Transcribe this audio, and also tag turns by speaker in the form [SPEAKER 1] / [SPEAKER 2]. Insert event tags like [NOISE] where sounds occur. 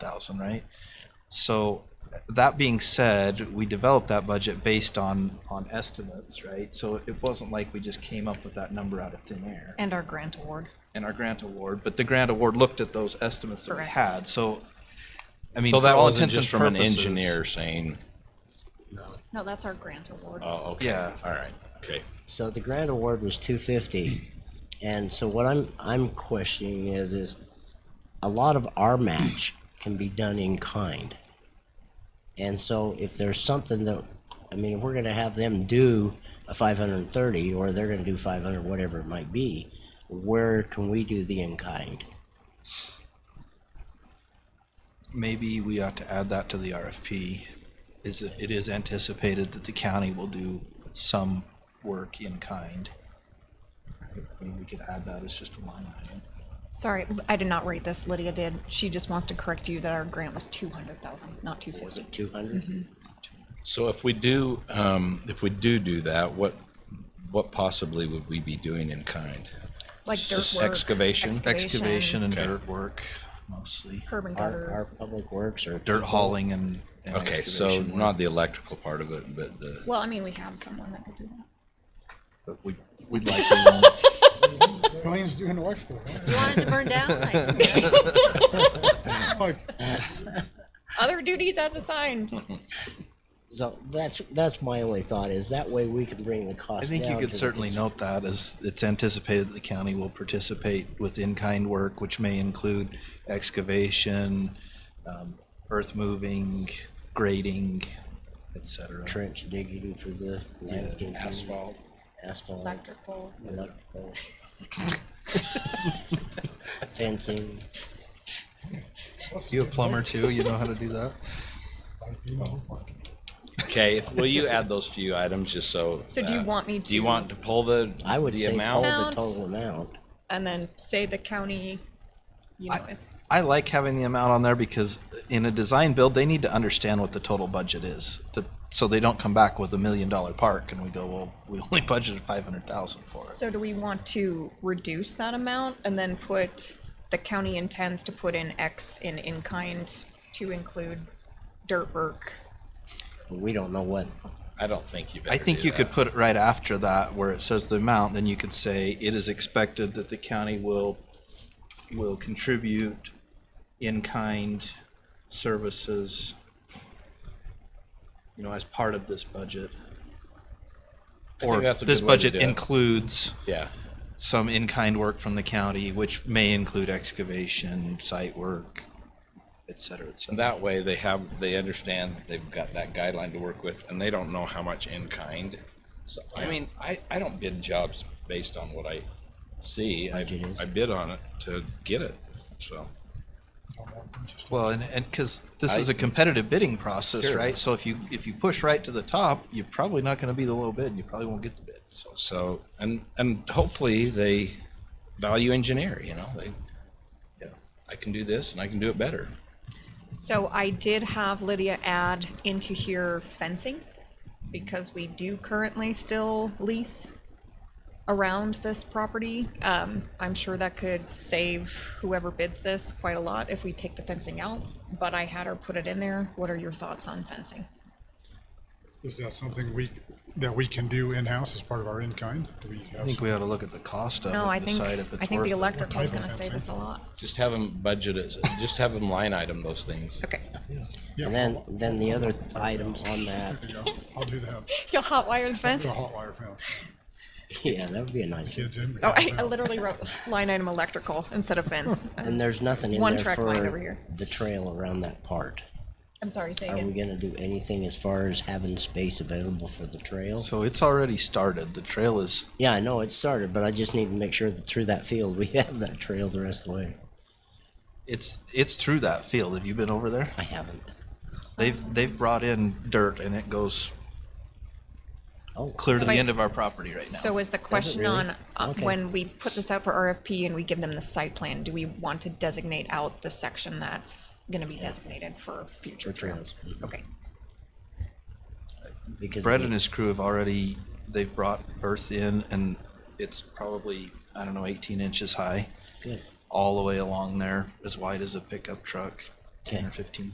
[SPEAKER 1] thousand, right? So that being said, we developed that budget based on, on estimates, right? So it wasn't like we just came up with that number out of thin air
[SPEAKER 2] And our grant award.
[SPEAKER 1] and our grant award, but the grant award looked at those estimates that we
[SPEAKER 2] Correct.
[SPEAKER 1] had, so. I mean,
[SPEAKER 3] So
[SPEAKER 1] for
[SPEAKER 3] that
[SPEAKER 1] all
[SPEAKER 3] wasn't
[SPEAKER 1] intents and
[SPEAKER 3] just from an
[SPEAKER 1] purposes-
[SPEAKER 3] engineer saying,
[SPEAKER 2] No, that's our grant award.
[SPEAKER 3] oh, okay.
[SPEAKER 1] Yeah.
[SPEAKER 3] All right, okay.
[SPEAKER 4] So the grant award was two fifty, and so what I'm I'm questioning is is a lot of our match can be done in kind, and so if there's something that I mean, if we're going to have them do a five hundred and thirty, or they're going to do five hundred, whatever it might be, where can we do the in kind?
[SPEAKER 1] Maybe we ought to add that to the RFP, is that it is anticipated that the county will do some work in kind. I mean, we could add that as just a line item.
[SPEAKER 2] Sorry, I did not rate this. Lydia did. She just wants to correct you that our grant was two hundred thousand, not two
[SPEAKER 4] Was
[SPEAKER 2] fifty.
[SPEAKER 4] it two hundred?
[SPEAKER 3] So if we do, um, if we do do that, what, what possibly would we be doing in kind?
[SPEAKER 2] Like dirt
[SPEAKER 3] Just
[SPEAKER 2] work.
[SPEAKER 3] excavation?
[SPEAKER 1] Excavation and
[SPEAKER 3] Okay.
[SPEAKER 1] dirt work mostly,
[SPEAKER 2] Curb and
[SPEAKER 4] Our our
[SPEAKER 2] gutter.
[SPEAKER 4] public works or
[SPEAKER 1] dirt hauling and. and
[SPEAKER 3] Okay, so
[SPEAKER 1] excavation work.
[SPEAKER 3] not the electrical part of it, but the,
[SPEAKER 2] Well, I mean, we have someone that could do that.
[SPEAKER 1] But we, we'd like to.
[SPEAKER 5] Colleen's doing the electrical, right?
[SPEAKER 6] You want it to burn
[SPEAKER 2] [LAUGHS]
[SPEAKER 6] down? Like,
[SPEAKER 5] Like, [LAUGHS]
[SPEAKER 2] Other duties as
[SPEAKER 4] [LAUGHS]
[SPEAKER 2] assigned.
[SPEAKER 4] so that's that's my only thought is that way we can bring the cost.
[SPEAKER 1] I think you
[SPEAKER 4] down
[SPEAKER 1] could
[SPEAKER 4] to the
[SPEAKER 1] certainly
[SPEAKER 4] cons-
[SPEAKER 1] note that as it's anticipated that the county will participate with in-kind work, which may include excavation, um, earth moving, grading, et cetera.
[SPEAKER 4] trench digging for the landscape. Asphalt. Asphalt.
[SPEAKER 2] Electrical.
[SPEAKER 4] electrical. Fencing.
[SPEAKER 1] You a plumber too? You know how to do that?
[SPEAKER 3] okay, if- will you add those few items just so?
[SPEAKER 2] So do you
[SPEAKER 3] that-
[SPEAKER 2] want me
[SPEAKER 3] Do you
[SPEAKER 2] to-
[SPEAKER 3] want to pull the,
[SPEAKER 4] I would
[SPEAKER 3] the
[SPEAKER 4] say
[SPEAKER 3] amount?
[SPEAKER 4] all the
[SPEAKER 2] Amount.
[SPEAKER 4] total amount.
[SPEAKER 2] And then say the county, you know, is,
[SPEAKER 1] I like having the amount on there because in a design build, they need to understand what the total budget is. That, so they don't come back with a million dollar park and we go, well, we only [LAUGHS] budgeted five hundred thousand for it.
[SPEAKER 2] so do we want to reduce that amount and then put, the county intends to put in X in in-kind to include dirt work?
[SPEAKER 4] But we don't know what.
[SPEAKER 3] I don't think you better
[SPEAKER 1] I think
[SPEAKER 3] do
[SPEAKER 1] you could
[SPEAKER 3] that.
[SPEAKER 1] put it right after that where it says the amount, then you could say it is expected that the county will, will contribute in-kind services, you know, as part of this budget.
[SPEAKER 3] I think
[SPEAKER 1] Or
[SPEAKER 3] that's a
[SPEAKER 1] this
[SPEAKER 3] good way to
[SPEAKER 1] budget
[SPEAKER 3] do it.
[SPEAKER 1] includes
[SPEAKER 3] Yeah,
[SPEAKER 1] some in-kind work from the county, which may include excavation, site work, et cetera, et cetera.
[SPEAKER 3] that way they have, they understand they've got that guideline to work with and they don't know how much in kind. So, I mean, I, I don't bid jobs based on what I see. I,
[SPEAKER 4] Budget is.
[SPEAKER 3] I bid on it to get it, so.
[SPEAKER 1] Well, and, and, cause this
[SPEAKER 3] I-
[SPEAKER 1] is a competitive bidding process,
[SPEAKER 3] Sure.
[SPEAKER 1] right? So if you, if you push right to the top, you're probably not gonna be the low bid and you probably won't get the bid, so.
[SPEAKER 3] So and and hopefully they value engineer. You know, they
[SPEAKER 1] yeah.
[SPEAKER 3] I can do this and I can do it better.
[SPEAKER 2] So I did have Lydia add into here fencing, because we do currently still lease around this property. Um, I'm sure that could save whoever bids this quite a lot if we take the fencing out, but I had her put it in there. What are your thoughts on fencing?
[SPEAKER 5] Is that something we, that we can do in-house as part of our in-kind? Do we
[SPEAKER 1] I
[SPEAKER 5] have
[SPEAKER 1] think
[SPEAKER 5] some-
[SPEAKER 1] we ought to look at the cost of it,
[SPEAKER 2] No, I
[SPEAKER 1] and
[SPEAKER 2] think,
[SPEAKER 1] decide
[SPEAKER 2] I
[SPEAKER 1] if it's
[SPEAKER 2] think
[SPEAKER 1] worth
[SPEAKER 2] the
[SPEAKER 1] it.
[SPEAKER 2] electrical is
[SPEAKER 5] type
[SPEAKER 2] gonna
[SPEAKER 5] of
[SPEAKER 2] save us a
[SPEAKER 5] fencing?
[SPEAKER 2] lot.
[SPEAKER 3] Just have them budget it. Just have them line item those things.
[SPEAKER 2] [LAUGHS] Okay,
[SPEAKER 5] Yeah,
[SPEAKER 4] And then then the other item on that. [LAUGHS]
[SPEAKER 5] I'll- I'll do that.
[SPEAKER 2] you'll hotwire the
[SPEAKER 5] The
[SPEAKER 2] fence?
[SPEAKER 5] hot wire fence.
[SPEAKER 4] Yeah, that would be a nice.
[SPEAKER 5] Kids in.
[SPEAKER 2] Oh, I, I literally wrote line item electrical instead of fence.
[SPEAKER 4] And there's nothing in
[SPEAKER 2] One
[SPEAKER 4] there
[SPEAKER 2] track
[SPEAKER 4] for
[SPEAKER 2] line over here.
[SPEAKER 4] the trail around that part.
[SPEAKER 2] I'm sorry, say
[SPEAKER 4] Are we
[SPEAKER 2] again.
[SPEAKER 4] going to do anything as far as having space available for the trail?
[SPEAKER 1] So it's already started. The trail is,
[SPEAKER 4] Yeah, I know it started, but I just need to make sure that through that field we [LAUGHS] have that trail the rest of the way.
[SPEAKER 1] it's, it's through that field. Have you been over there?
[SPEAKER 4] I haven't.
[SPEAKER 1] They've, they've brought in dirt and it goes
[SPEAKER 4] Oh,
[SPEAKER 1] clear to the
[SPEAKER 2] I-
[SPEAKER 1] end of our property right now.
[SPEAKER 2] So is the question
[SPEAKER 4] really?
[SPEAKER 2] on, uh,
[SPEAKER 4] Okay.
[SPEAKER 2] when we put this out for RFP and we give them the site plan, do we want to designate out the section that's gonna be designated for future
[SPEAKER 4] For
[SPEAKER 2] trails?
[SPEAKER 4] trails.
[SPEAKER 2] Okay,
[SPEAKER 4] because
[SPEAKER 1] Brett and his crew have already, they've brought earth in and it's probably, I don't know, eighteen inches high.
[SPEAKER 4] Good.
[SPEAKER 1] all the way along there, as wide as a pickup truck. ten or fifteen